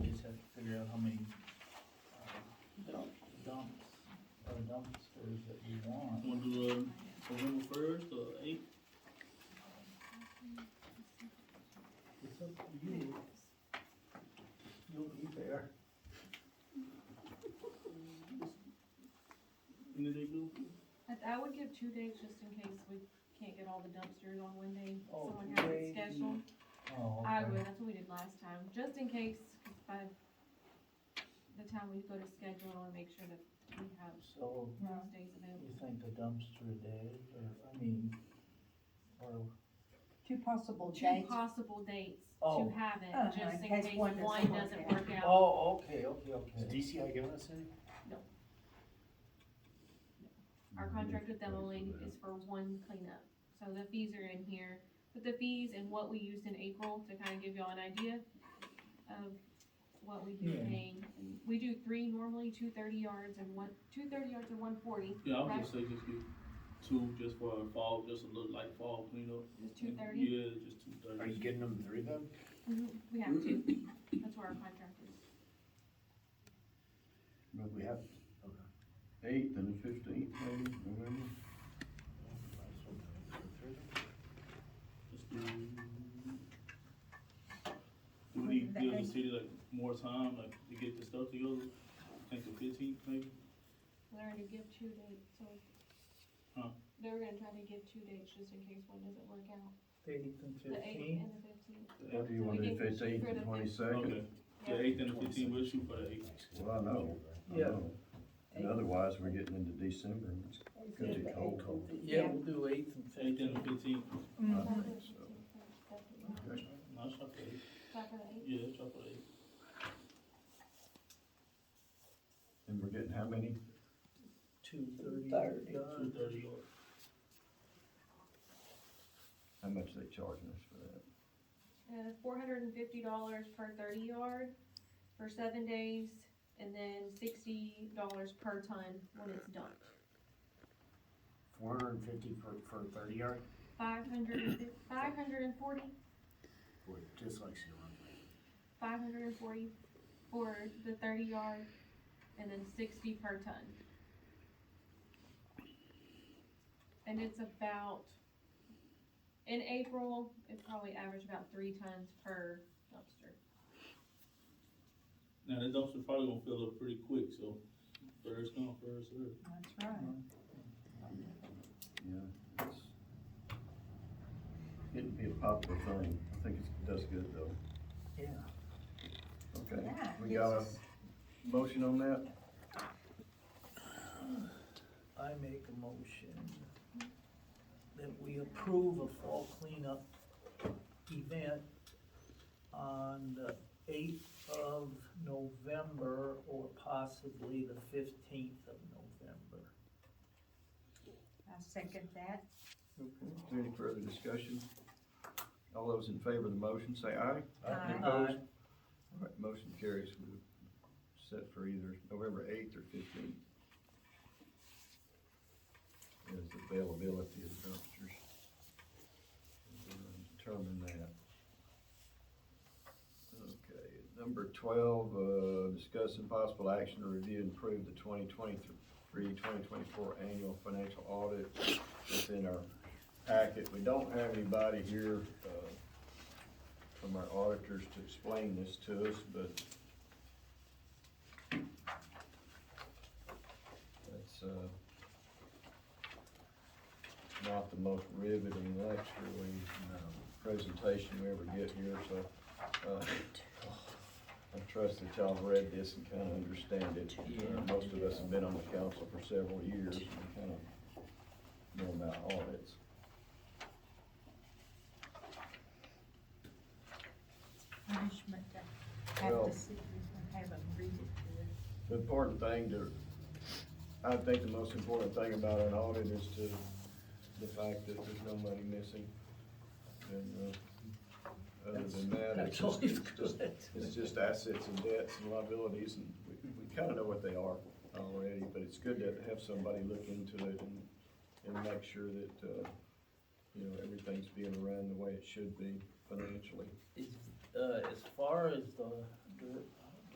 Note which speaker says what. Speaker 1: how many, uh, dumps, or dumpsters that you want.
Speaker 2: Wanna do, um, November first or eighth?
Speaker 1: It's up to you. You'll be there.
Speaker 2: Any day good?
Speaker 3: I, I would give two days just in case we can't get all the dumpsters on one day,
Speaker 1: Oh,
Speaker 3: someone has
Speaker 1: day,
Speaker 3: it scheduled.
Speaker 1: Oh,
Speaker 3: I
Speaker 1: okay.
Speaker 3: would, that's what we did last time, just in case, 'cause by the time we go to schedule, I wanna make sure that we have
Speaker 1: So,
Speaker 3: those days available.
Speaker 1: you think the dumpster day, or, I mean, or,
Speaker 4: Two possible
Speaker 3: Two
Speaker 4: dates.
Speaker 3: possible dates
Speaker 1: Oh.
Speaker 3: to have
Speaker 4: Uh-huh,
Speaker 3: it, just
Speaker 4: in
Speaker 3: in
Speaker 4: case
Speaker 3: case
Speaker 4: one doesn't
Speaker 3: one
Speaker 4: work
Speaker 3: doesn't
Speaker 4: out.
Speaker 3: work out.
Speaker 1: oh, okay, okay,
Speaker 5: Is
Speaker 1: okay.
Speaker 5: DCI giving us any?
Speaker 3: Our contract with them only is for one cleanup, so the fees are in here. But the fees and what we used in April to kind of give y'all an idea of what we've
Speaker 1: Yeah.
Speaker 3: been paying. We do three normally, two thirty yards and one, two thirty yards and one forty,
Speaker 2: Yeah, I would just say just get two, just for a fall, just a little like fall cleanup.
Speaker 3: is two thirty.
Speaker 2: Yeah, just two
Speaker 5: Are you
Speaker 2: thirty.
Speaker 5: getting them through them?
Speaker 3: Mhm, We have to, that's where our contract is.
Speaker 5: But we have, okay.
Speaker 6: Eighth and the fifteenth, maybe, November?
Speaker 2: Just do. Do we need to give the city like more time, like to get the stuff together? Think the fifteenth maybe?
Speaker 3: They're gonna give two dates, so.
Speaker 2: Huh.
Speaker 3: They were gonna try to give two dates just in case one doesn't work out,
Speaker 1: Eighth and
Speaker 3: the eighth
Speaker 1: fifteenth,
Speaker 3: and the fifteenth.
Speaker 6: What do you want to do, fifteenth and
Speaker 2: Okay,
Speaker 6: twenty-second?
Speaker 2: the eighth and the fifteenth, we'll shoot for the eighth.
Speaker 6: Well, I know, I
Speaker 1: Yeah.
Speaker 6: know. And otherwise, we're getting into December, and it's gonna be cold, cold.
Speaker 1: yeah, we'll do eighth and
Speaker 2: Eighth
Speaker 1: fifteenth.
Speaker 2: and the fifteenth,
Speaker 6: I
Speaker 4: Mm.
Speaker 3: Not
Speaker 6: think so.
Speaker 3: for
Speaker 6: Okay.
Speaker 2: no, it's not for the eighth,
Speaker 3: the eighth.
Speaker 2: yeah, it's not for the eighth.
Speaker 6: And we're getting how many?
Speaker 1: Two thirty.
Speaker 4: Thirty.
Speaker 2: Two thirty or
Speaker 6: How much they charging us for that?
Speaker 3: Uh, four hundred and fifty dollars per thirty yard for seven days, and then sixty dollars per ton when it's dumped.
Speaker 5: Four hundred and fifty for, for a thirty yard,
Speaker 3: Five hundred, five hundred and forty,
Speaker 5: or just like she wanted.
Speaker 3: five hundred and forty for the thirty yard, and then sixty per ton. And it's about, in April, it probably averaged about three tons per dumpster.
Speaker 2: Now, that dumpster probably gonna fill up pretty quick, so first come, first served.
Speaker 4: That's right.
Speaker 6: Yeah. it's- It'd be a popular thing, I think it does good though.
Speaker 1: Yeah.
Speaker 6: Okay,
Speaker 4: That
Speaker 6: we
Speaker 4: gives
Speaker 6: got a
Speaker 4: us-
Speaker 6: motion on that?
Speaker 1: I make a motion that we approve a fall cleanup event on the eighth of November or possibly the fifteenth of November.
Speaker 4: I second that.
Speaker 6: Okay, is there any further discussion? All those in favor of the motion, say aye.
Speaker 4: Aye.
Speaker 6: Any Opposed? All right, motion carries, we set for either November eighth or fifteenth. Is availability of dumpsters. We're gonna Determine that. Okay, number twelve, uh, discuss and possible action to review and approve the 2023-2024 annual financial audit within our packet. We don't have anybody here, uh, from our auditors to explain this to us, but that's, uh, not the most riveting lecture we, uh, presentation we ever get here, so, uh, I trust that y'all have read this and kinda understand it. Uh, Most of us have been on the council for several years and kinda know about audits.
Speaker 4: Punishment to have
Speaker 6: Well-
Speaker 4: to sit and have them read it to us.
Speaker 6: The important thing to, I think the most important thing about an audit is to, the fact that there's no money missing. And, uh, other than that, it's
Speaker 1: That's
Speaker 6: just,
Speaker 1: always
Speaker 6: it's just-
Speaker 1: good.
Speaker 6: it's just assets and debts and liabilities, and we, we kinda know what they are already, but it's good to have somebody look into it and, and make sure that, uh, you know, everything's being run the way it should be financially.
Speaker 1: Is, uh, as far as the, the